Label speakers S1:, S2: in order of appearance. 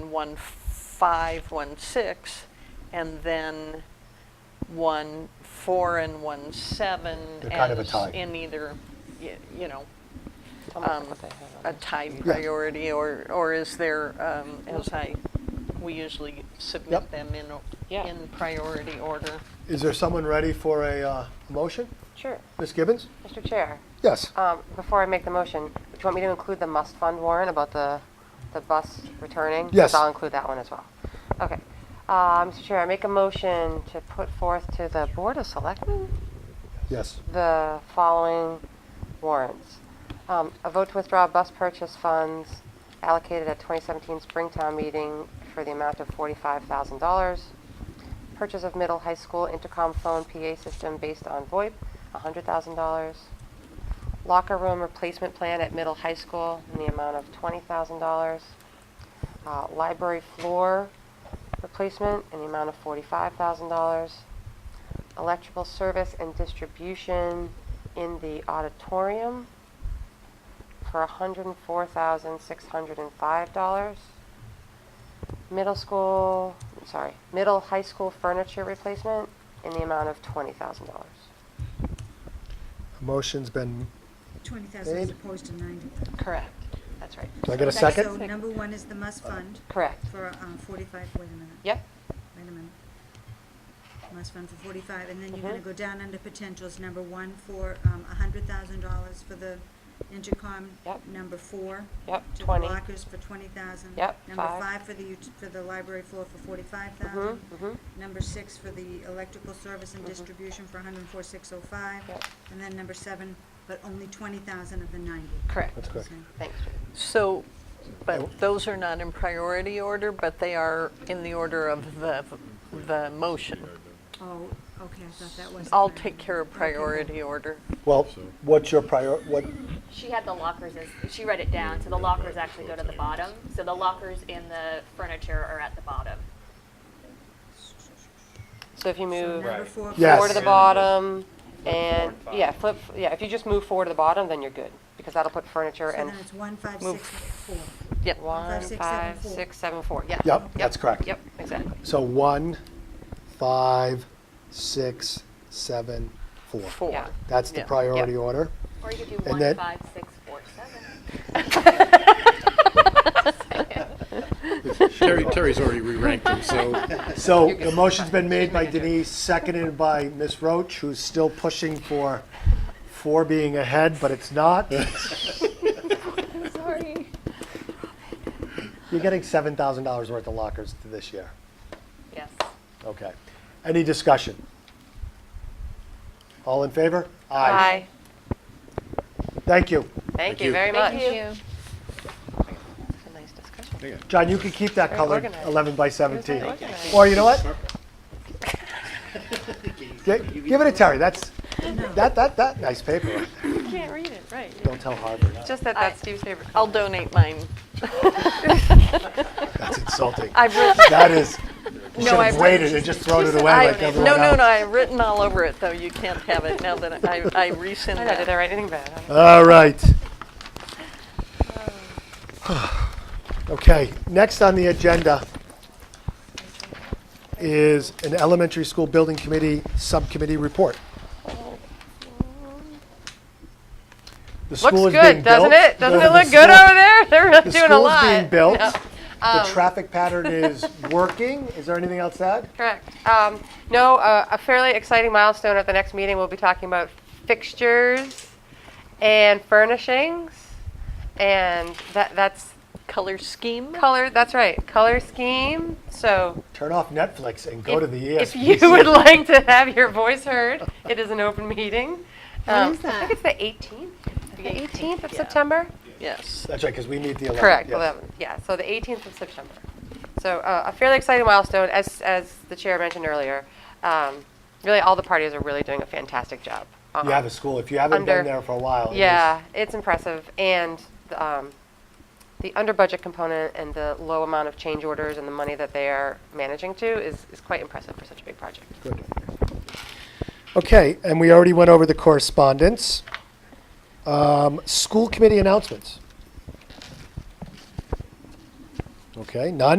S1: then one five, one six, and then one four and one seven.
S2: They're kind of a
S1: as
S2: tie.
S1: In either, y- you know,
S3: I'll look
S1: um,
S3: what they have
S1: a
S3: on
S1: tie priority, or, or is there, um, as I, we usually submit
S2: Yep.
S1: them in, o-
S3: Yeah.
S1: in priority order.
S2: Is there someone ready for a uh, motion?
S3: it. Sure.
S2: Ms. Gibbons?
S3: Mr. Chair,
S2: Yes.
S3: um, before I make the motion, do you want me to include the must fund warrant about the, the bus returning? 'Cause
S2: Yes.
S3: I'll include that one as well. Okay. Uh, Mr. Chair, I make a motion to put forth to the Board of Selectmen
S2: Yes.
S3: the following warrants. Um, A vote to withdraw bus purchase funds allocated at 2017 Springtown meeting for the amount of $45,000. Purchase of middle high school intercom phone PA system based on VoIP, $100,000. Locker room replacement plan at middle high school in the amount of $20,000. Uh, Library floor replacement in the amount of $45,000 electrical service and distribution in the auditorium for $104,605. Middle school, sorry, middle high school furniture replacement in the amount of $20,000.
S2: A Motion's been,
S4: 20,000 as
S2: Babe?
S4: opposed to 90.
S3: Correct. That's right.
S2: do I get a
S4: Okay, So
S2: second?
S4: number one is the must fund
S3: Correct.
S4: for um, 45, wait a minute,
S3: Yep.
S4: wait a minute. Must fund for 45, and then you're going to
S3: Mhm.
S4: go down under potentials, number one for um, $100,000 for the intercom.
S3: Yep.
S4: Number four.
S3: Yep,
S4: to the
S3: 20.
S4: lockers for 20,000.
S3: Yep,
S4: Number
S3: five.
S4: five for the, ut- for the library floor for 45,000.
S3: Mhm, mhm.
S4: Number six for the electrical service and distribution for 104,605.
S3: Mm-hmm. Yep.
S4: And then number seven, but only 20,000 of the 90.
S1: Correct.
S2: That's correct.
S4: Okay.
S3: Thanks.
S1: So,
S2: Oh.
S1: but those are not in priority order, but they are in the order of the, the motion.
S4: Oh, okay, I thought that was.
S1: I'll take care of priority order.
S2: Well, what's your prior, what,
S5: She had the lockers as she read it down, so the lockers actually go to the bottom. So the lockers and the furniture are at the bottom.
S3: So if you move
S4: Number four.
S2: Yes.
S3: forward to the bottom and,
S6: Forward five.
S3: yeah, flip, yeah, if you just move forward to the bottom, then you're good because that'll put furniture
S4: So then
S3: and
S4: it's one, five,
S3: move.
S4: six, four.
S1: Yep.
S3: one,
S4: five, six, seven,
S3: five,
S4: four.
S3: six, seven, four. Yeah.
S2: yep, that's correct.
S3: Yep, exactly.
S2: So one, five, six, seven, four.
S1: Four.
S3: Yeah.
S2: That's the
S1: Yeah.
S2: priority
S3: Yeah.
S2: order.
S5: Or you could do
S2: And
S5: one,
S2: that-
S5: five, six, four, seven.
S6: Terry, Terry's already re-ranked them, so
S2: So the motion's been made by Denise, seconded by Ms. Roach, who's still pushing for four being ahead, but it's not.
S5: Sorry.
S2: You're getting $7,000 worth of lockers this year.
S5: Yes.
S2: Okay. Any discussion? All in favor?
S3: Bye.
S2: Thank you.
S3: Thank
S6: you.
S3: you very much.
S5: Thank you.
S3: It's a nice discussion.
S2: John, you can keep that
S3: Very
S2: color
S3: organized.
S2: 11 by 17.
S3: organized.
S2: Or you know what? Gi- Give it to Terry. That's, that, that, that, nice paper.
S3: You can't read it, right.
S2: Don't tell Harvard.
S3: Just that that's Steve's favorite.
S1: I'll donate mine.
S2: That's insulting.
S1: I've written,
S2: That is, you should
S1: No,
S2: have
S1: I've-
S2: waited and just thrown it away
S1: I,
S2: like
S1: no,
S2: everyone else.
S1: no, no, I've written all over it, though. You can't have it now that I, I rescind
S3: I know, did I
S1: that.
S3: write anything bad? I don't-
S2: All right. Okay, next on the agenda is an elementary school building committee subcommittee report. The school
S3: Looks
S2: is being
S3: good, doesn't
S2: built.
S3: it? Doesn't
S2: The-
S3: it
S2: the
S3: look good
S2: school-
S3: over there? They're really
S2: The
S3: doing a
S2: school
S3: lot.
S2: is being built. The
S3: Um,
S2: traffic pattern is working. Is there anything else to add?
S3: Correct. Um, no, uh, a fairly exciting milestone at the next meeting. We'll be talking about fixtures and furnishings, and that that's
S1: Color scheme?
S3: color. That's right, color scheme. So
S2: Turn off Netflix and go
S3: if,
S2: to the E
S3: if
S2: ESPN.
S3: you would like to have your voice heard, it is an open meeting. Um, I think it's the 18th. The 18th of September.
S1: Yes.
S2: That's right, because we need the 11th.
S3: Correct,
S2: yes.
S3: 11, yeah, so the 18th of September. So uh, a fairly exciting milestone, as, as the chair mentioned earlier. Um, Really, all the parties are really doing a fantastic job. Uh,
S2: Yeah, the school, if you haven't been
S3: Under-
S2: there for a while. it is-
S3: Yeah, it's impressive, and um, the under-budget component and the low amount of change orders and the money that they are managing to is, is quite impressive for such a big project.
S2: Okay, and we already went over the correspondence. Um, School committee announcements. Okay, none?